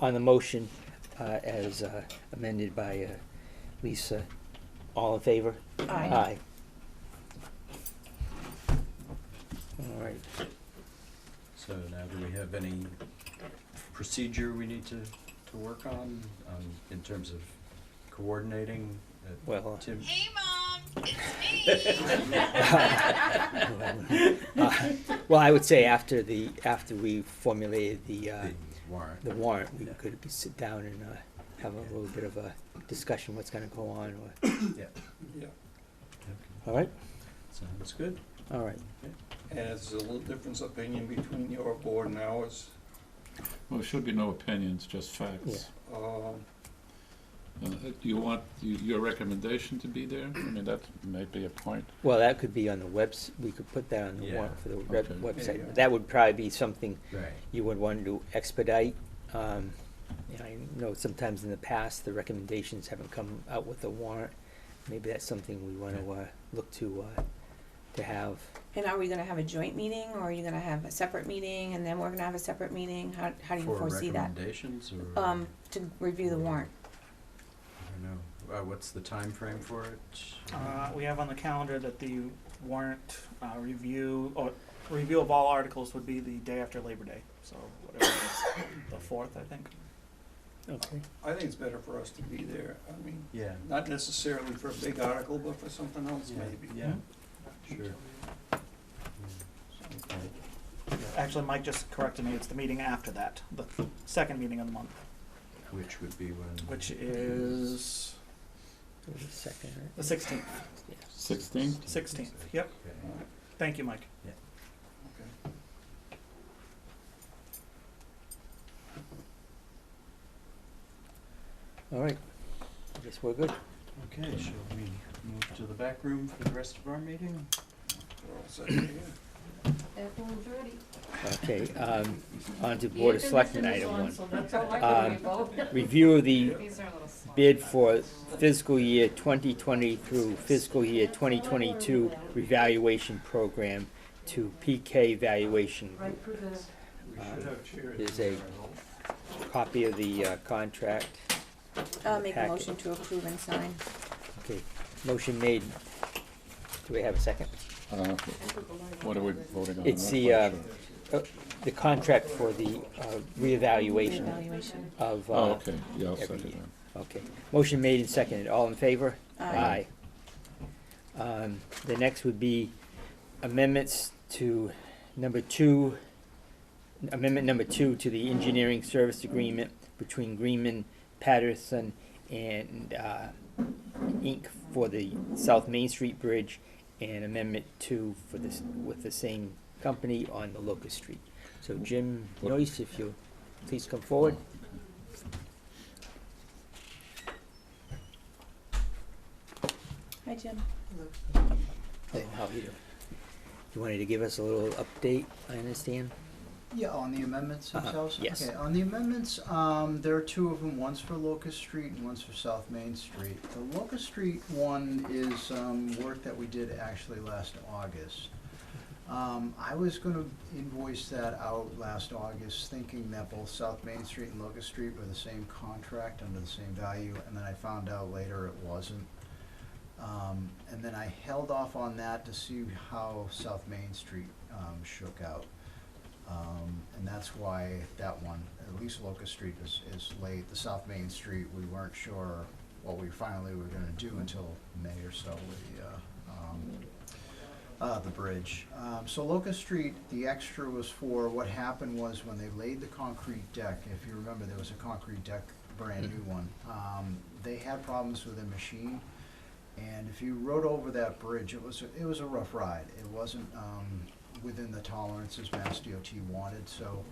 on the motion uh, as uh, amended by uh, Lisa. All in favor? Aye. All right. So now do we have any procedure we need to, to work on, um, in terms of coordinating? uh, Well, Tim, Hey, Mom, it's me. uh, well, I would say after the, after we formulated the, uh, the warrant. the warrant, we could sit down and uh, have a little bit of a discussion what's gonna go on or, Yeah, Okay, all right? Sounds good. All right. and it's a little difference of opinion between your board and ours. Well, there should be no opinions, just facts. Um, Uh, Do you want y- your recommendation to be there? I mean, that may be a point. Well, that could be on the webs, we could put that on the warrant Yeah, for the web- okay. website. Yeah. That would probably be something Right. you would want to expedite. Um, and I know sometimes in the past, the recommendations haven't come out with the warrant. Maybe that's something we want to, uh, look to, uh, to have. And are we gonna have a joint meeting, or are you gonna have a separate meeting, and then we're gonna have a separate meeting? How, how do you foresee For that? recommendations or? Um, to review the warrant. I don't know. Uh, what's the time frame for it? Uh, we have on the calendar that the warrant uh, review or review of all articles would be the day after Labor Day. So whatever it is, the fourth, I think. Okay. I think it's better for us to be there, I mean, Yeah. not necessarily for a big article, but for something else Yeah, maybe. Yeah, Hmm? sure. Okay. Actually, Mike just corrected me. It's the meeting after that, the second meeting of the month, Which would be when? which is Wait a second, right? the sixteenth. Sixteenth? Sixteenth. Yep. Okay. Thank you, Mike. All right. I guess we're good. Okay, shall we move to the back room for the rest of our meeting? We're all set here. Okay, um, on to Board of Selectmen item one. Um, one. Review of the These are a little small. bid for fiscal year 2020 through fiscal year 2022 revaluation program to PK Valuation. Group. We Um, should have chairs. there's a- Copy of the uh, contract. Uh, make a Packet. motion to approve and sign. Okay, motion made. Do we have a second? Uh, What are we voting on? It's I'm the, not uh, quite sure. uh, the contract for the uh, reevaluation Evaluation. of, Oh, uh, okay, yeah, I'll every second year. that. okay. Motion made and seconded. All in favor? Aye. Aye. Um, the next would be amendments to number two, amendment number two to the engineering service agreement between Greenman Patterson and, uh, Inc. for the South Main Street Bridge and amendment two for this, with the same company on the Locust Street. So Jim What- Noyce, if you'll please come forward. Hi, Jim. Hey, how are you doing? You wanted to give us a little update, I understand? Yeah, on the amendments Uh-huh, themselves? yes. Okay, on the amendments, um, there are two of them, one's for Locust Street and one's for South Main Street. The Locust Street one is, um, work that we did actually last August. Um, I was gonna invoice that out last August, thinking that both South Main Street and Locust Street were the same contract under the same value, and then I found out later it wasn't. Um, and then I held off on that to see how South Main Street, um, shook out. Um, and that's why that one, at least Locust Street is, is late. The South Main Street, we weren't sure what we finally were gonna do until May or so with the, uh, um, uh, the bridge. Um, so Locust Street, the extra was for, what happened was when they laid the concrete deck, if you remember, there was a concrete deck, brand new one. Um, they had problems with their machine. And if you rode over that bridge, it was, it was a rough ride. It wasn't, um, within the tolerances Mass DOT wanted, so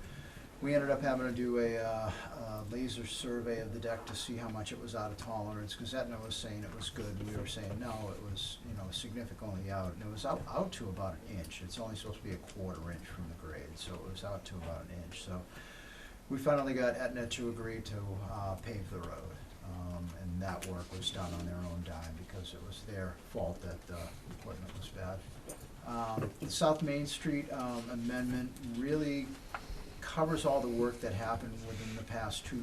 we ended up having to do a, uh, a laser survey of the deck to see how much it was out of tolerance, cause Aetna was saying it was good, and we were saying, no, it was, you know, significantly out, and it was out, out to about an inch. It's only supposed to be a quarter inch from the grade, so it was out to about an inch, so we finally got Aetna to agree to, uh, pave the road. Um, and that work was done on their own dime because it was their fault that the equipment was bad. Um, the South Main Street, um, amendment really covers all the work that happened within the past two